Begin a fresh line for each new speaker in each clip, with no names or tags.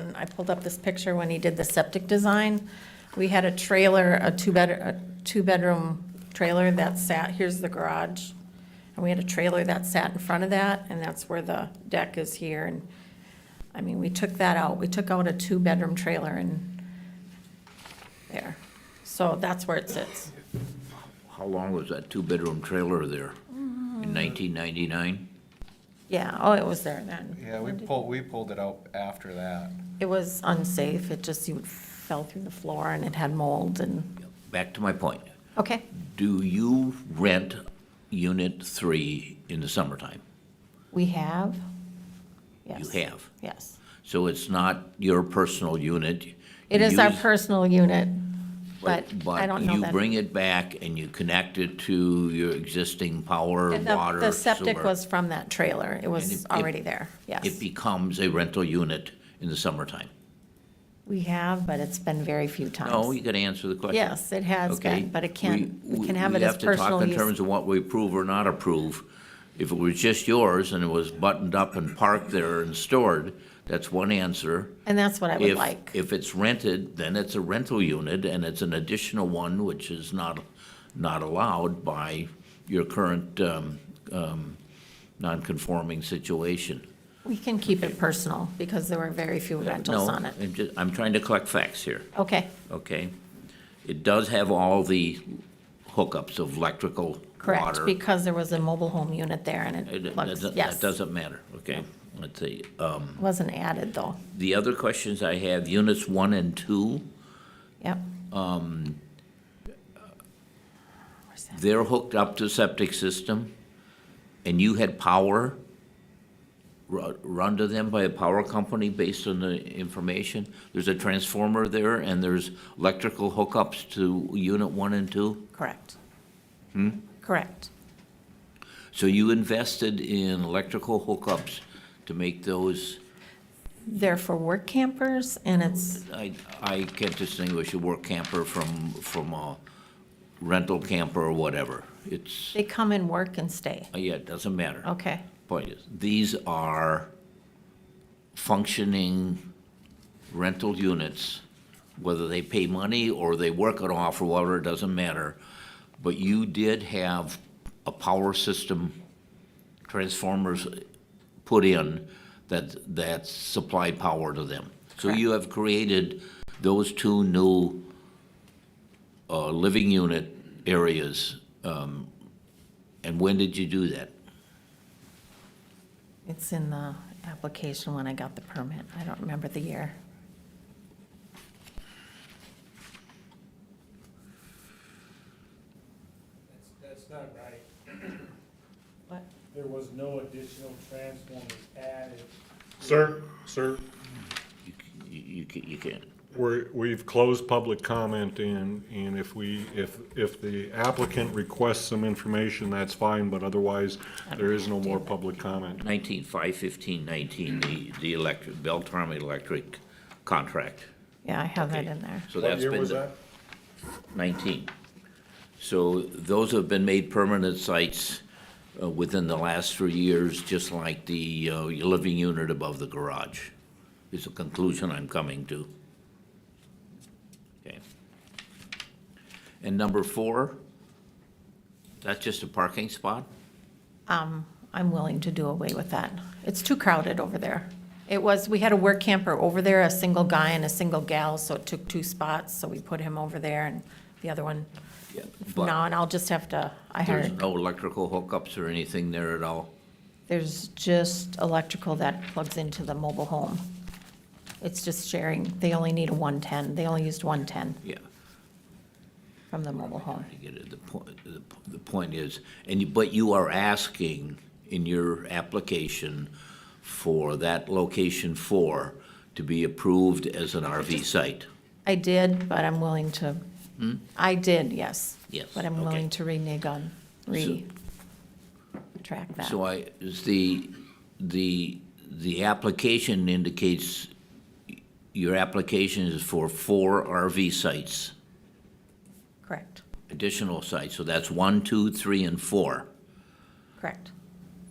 And I pulled up this picture when he did the septic design. We had a trailer, a two-bed, a two-bedroom trailer that sat, here's the garage. And we had a trailer that sat in front of that, and that's where the deck is here. And, I mean, we took that out. We took out a two-bedroom trailer and there. So that's where it sits.
How long was that two-bedroom trailer there?
Mm-hmm.
In 1999?
Yeah, oh, it was there then.
Yeah, we pulled, we pulled it out after that.
It was unsafe. It just, you fell through the floor and it had mold and,
Back to my point.
okay.
Do you rent Unit 3 in the summertime?
We have?
You
Yes.
have.
Yes.
So it's not your personal unit?
It is our
You-
personal unit, but I don't know
But you
that.
bring it back and you connect it to your existing power,
The-
water,
The septic
sewer.
was from that trailer. It
And
was
it- it-
already there, yes.
It becomes a rental unit in the summertime?
We have, but it's been very few
No, you
times.
gotta answer the question.
Yes, it has
Okay,
been, but it can,
we-
we can have
we
it as personal
have to talk in terms
use.
of what we approve or not approve. If it was just yours and it was buttoned up and parked there and stored, that's one answer.
And that's what I would
If,
like.
if it's rented, then it's a rental unit and it's an additional one, which is not, not allowed by your current, um, um, non-conforming situation.
We can keep it personal because there were very few rentals
No,
on it.
I'm just, I'm trying to collect facts here.
Okay,
okay? It does have all the hookups of electrical,
correct,
water.
because there was a mobile home unit there and
It-
it
it
looks,
doesn't-
yes,
Uh, That doesn't matter, okay? Let's see. Uh,
wasn't added though.
The other questions I have, units one and two,
Yep,
they're hooked up to septic system, and you had power ru- run to them by a power company based on the information? There's a transformer there, and there's electrical hookups to unit one and two?
correct.
Hmm?
Correct.
So you invested in electrical hookups to make those,
They're for work campers and it's,
I, I can't distinguish a work camper from, from a rental camper or whatever. It's,
they come and work and stay.
yeah, it doesn't matter.
Okay,
Point is, these are functioning rental units, whether they pay money or they work it off or whatever, it doesn't matter. But you did have a power system transformers put in that, that supply power to them. So you have created those two new uh, living unit areas. um, And when did you do that?
it's in the application when I got the permit. I don't remember the year.
That's, that's not right.
What?
There was no additional transformers added.
Sir, sir,
You, c- you, c- you can't.
we're, we've closed public comment and, and if we, if, if the applicant requests some information, that's fine, but otherwise, there is no more public comment.
Nineteen, five fifteen nineteen, the, the electric, Beltram Electric contract.
Yeah, I have that
Okay.
in there.
So that's been. the- Nineteen. So those have been made permanent sites uh, within the last three years, just like the uh, living unit above the garage. Is the conclusion I'm coming to. Okay. And number four, that's just a parking spot?
I'm willing to do away with that. It's too crowded over there. It was, we had a work camper over there, a single guy and a single gal, so it took two spots, so we put him over there and the other one,
But-
no, and I'll just have to, I
There's
hired,
no electrical hookups or anything there at all?
there's just electrical that plugs into the mobile home. It's just sharing, they only need a 110, they only used 110
Yeah.
from the mobile home.
I get it. The point, the, the point is, and you, but you are asking in your application for that location four to be approved as an RV site.
I did, but I'm willing to, I did, yes.
Hmm? Yes,
But I'm
okay.
willing to renege on, re, track that.
So I, is the, the, the application indicates, your application is for four RV sites,
Correct,
additional sites, so that's one, two, three, and four.
correct.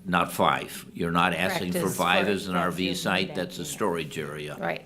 not five. You're not asking
Correct,
for
is
five
for-
as an
for
RV
using
site,
that
that's a
unit.
storage area.
Right,